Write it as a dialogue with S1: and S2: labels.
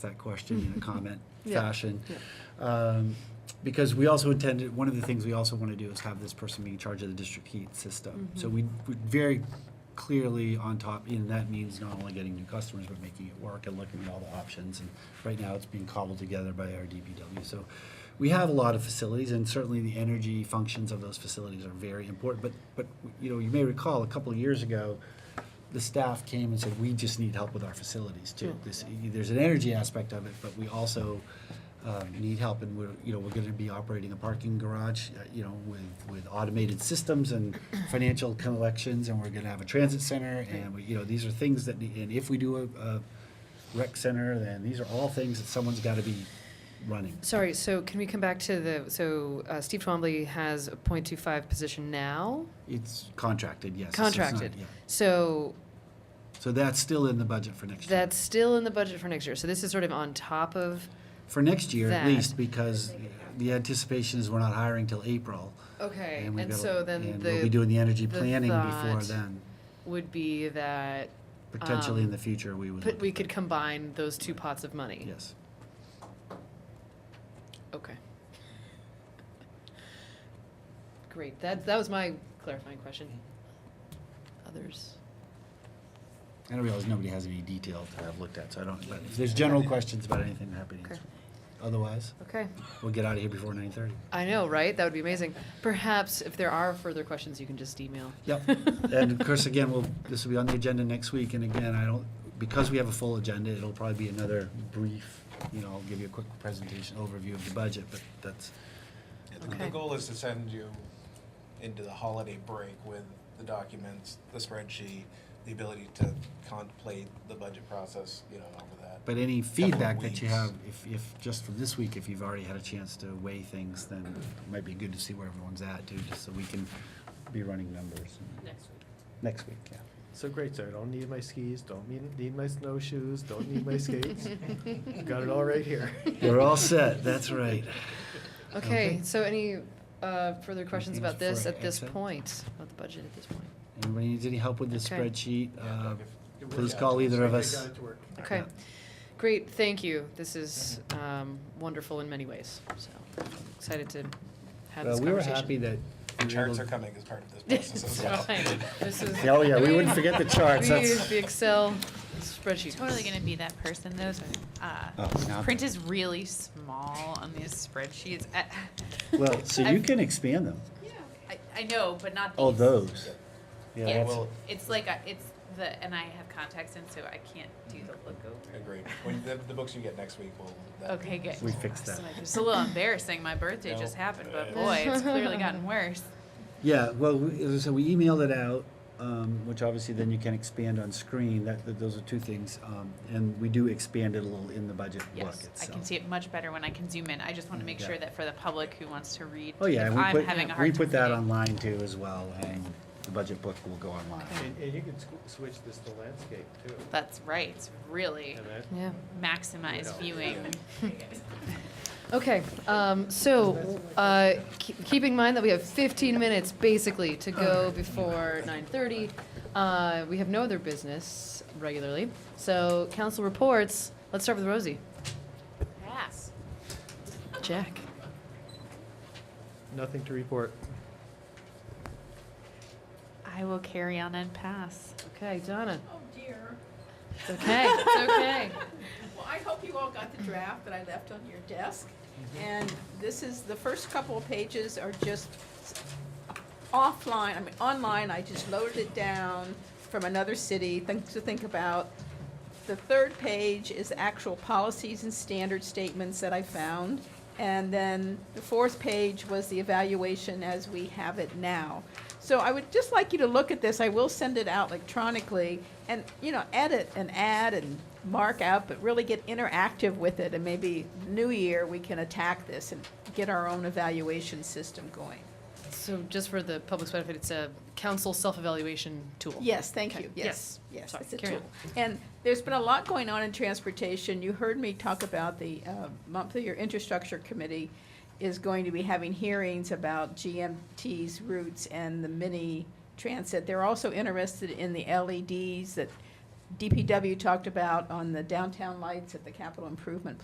S1: that question in a comment
S2: Yeah,
S1: fashion. Um, Because we also intended, one of the things we also want to do is have this person be in charge of the district heat system.
S2: Mm-hmm.
S1: So we, we very clearly on top, and that means not only getting new customers, but making it work and looking at all the options. And right now, it's being cobbled together by our DPW. So we have a lot of facilities, and certainly the energy functions of those facilities are very important. But, but, you know, you may recall, a couple of years ago, the staff came and said, we just need help with our facilities too. This, there's an energy aspect of it, but we also um, need help and we're, you know, we're gonna be operating a parking garage, uh, you know, with, with automated systems and financial collections and we're gonna have a transit center and we, you know, these are things that, need- and if we do a, a rec center, then these are all things that someone's gotta be running.
S2: Sorry, so can we come back to the, so uh, Steve Twombly has a .25 position now,
S1: It's contracted, yes. so it's not-
S2: contracted.
S1: yeah.
S2: So
S1: So that's still in the budget for next year.
S2: that's still in the budget for next year. So this is sort of on top of,
S1: For next year, at
S2: That.
S1: least, because the anticipation is we're not hiring till April.
S2: okay,
S1: we've
S2: and
S1: gotta-
S2: so then
S1: And we'll be
S2: the,
S1: doing the energy
S2: the
S1: planning before
S2: thought-
S1: then.
S2: would be that
S1: Potentially
S2: um,
S1: in the future, we would.
S2: put-
S1: look
S2: we
S1: at
S2: could
S1: that.
S2: combine those two pots of money.
S1: Yes.
S2: Okay. Great, that, that was my clarifying question. Others?
S1: I don't realize nobody has any detail that I've looked at, so I don't, but if there's general questions about anything, I'm happy to
S2: Okay.
S1: answer. Otherwise,
S2: Okay.
S1: we'll get out of here before nine thirty.
S2: I know, right? That would be amazing. Perhaps if there are further questions, you can just email.
S1: Yep, and of course, again, we'll, this will be on the agenda next week, and again, I don't, because we have a full agenda, it'll probably be another brief, you know, I'll give you a quick presentation overview of the budget, but that's,
S3: Yeah, the- The
S2: Okay.
S3: goal is to send you into the holiday break with the documents, the spreadsheet, the ability to contemplate the budget process, you know, over that.
S1: But any feedback
S3: Couple of
S1: that you
S3: weeks.
S1: have, if, if, just from this week, if you've already had a chance to weigh things, then it might be good to see where everyone's at, too, just so we can be running numbers. Next week. Next week, yeah.
S4: So great, sir. Don't need my skis, don't need, need my snowshoes, don't need my skates. Got it all right here.
S1: You're all set, that's right.
S2: Okay,
S1: Okay.
S2: so any uh, further questions
S1: Anything
S2: about this
S1: for
S2: at this
S1: Excel?
S2: point, about the budget at this point?
S1: Anybody needs any help with the
S2: Okay.
S1: spreadsheet?
S3: Yeah,
S1: uh,
S3: like if-
S1: Please
S3: Yeah.
S1: call either of
S4: They
S1: us.
S4: got it to work.
S2: Okay,
S1: Yeah.
S2: great, thank you. This is um, wonderful in many ways, so excited to have
S1: Well,
S2: this conversation.
S1: we were happy that. we
S3: The
S1: were
S3: charts
S1: able-
S3: are coming as part of this process
S2: It's
S3: as well.
S2: fine. This is.
S1: Oh, yeah,
S2: I
S1: we
S2: mean,
S1: wouldn't forget the charts,
S2: We use
S1: that's,
S2: the Excel spreadsheet.
S5: Totally gonna be that person. Those uh,
S1: Oh, now-
S5: print is really small on these spreadsheets. I,
S1: well, so you can expand them,
S5: I, I know, but not these.
S1: oh, those. Yeah,
S5: Yeah,
S1: that's-
S5: it's, it's like a, it's the and I have contacts in, so I can't do the look over.
S3: Agreed. When the, the books you get next week will. that-
S5: Okay, good.
S1: We fixed that.
S5: It's a little embarrassing. My birthday just
S3: No.
S5: happened,
S3: Uh,
S5: but boy, it's clearly gotten worse.
S1: Yeah, well, we- so we emailed it out, um, which obviously then you can expand on screen, that, that, those are two things. um, And we do expand it a little in the budget book
S5: Yes,
S1: itself.
S5: I can see it much better when I can zoom in. I just want to make
S1: Yeah.
S5: sure that for the public who wants to read,
S1: Oh, yeah,
S5: if
S1: and we
S5: I'm
S1: put,
S5: having a hard
S1: we
S5: time
S1: put that
S5: reading.
S1: online too as well, and the budget book will go online.
S4: And, and you can squ- switch this to landscape too.
S5: That's right. It's really
S4: And that-
S2: Yeah.
S5: maximize
S4: Yeah.
S5: viewing.
S2: Okay, um, so, uh, keep- keeping in mind that we have 15 minutes basically to go before 9:30, uh, we have no other business regularly. So council reports, let's start with Rosie.
S5: Yes.
S2: Jack?
S4: Nothing to report.
S5: I will carry on and pass.
S2: Okay, Donna?
S6: Oh dear.
S2: It's okay, it's okay.
S6: Well, I hope you all got the draft that I left on your desk. And this is, the first couple of pages are just offline, I mean, online, I just loaded it down from another city, things to think about. The third page is actual policies and standard statements that I found. And then the fourth page was the evaluation as we have it now. So I would just like you to look at this. I will send it out electronically and, you know, edit and add and mark out, but really get interactive with it. And maybe new year, we can attack this and get our own evaluation system going.
S2: So just for the public's benefit, it's a council self-evaluation tool.
S6: Yes, thank
S2: Okay.
S6: you, yes, yes,
S2: Sorry,
S6: it's a
S2: carry on.
S6: tool. And there's been a lot going on in transportation. You heard me talk about the uh, monthly, your infrastructure committee is going to be having hearings about GMT's routes and the mini transit. They're also interested in the LEDs E that DPW talked about on the downtown lights at the capital improvement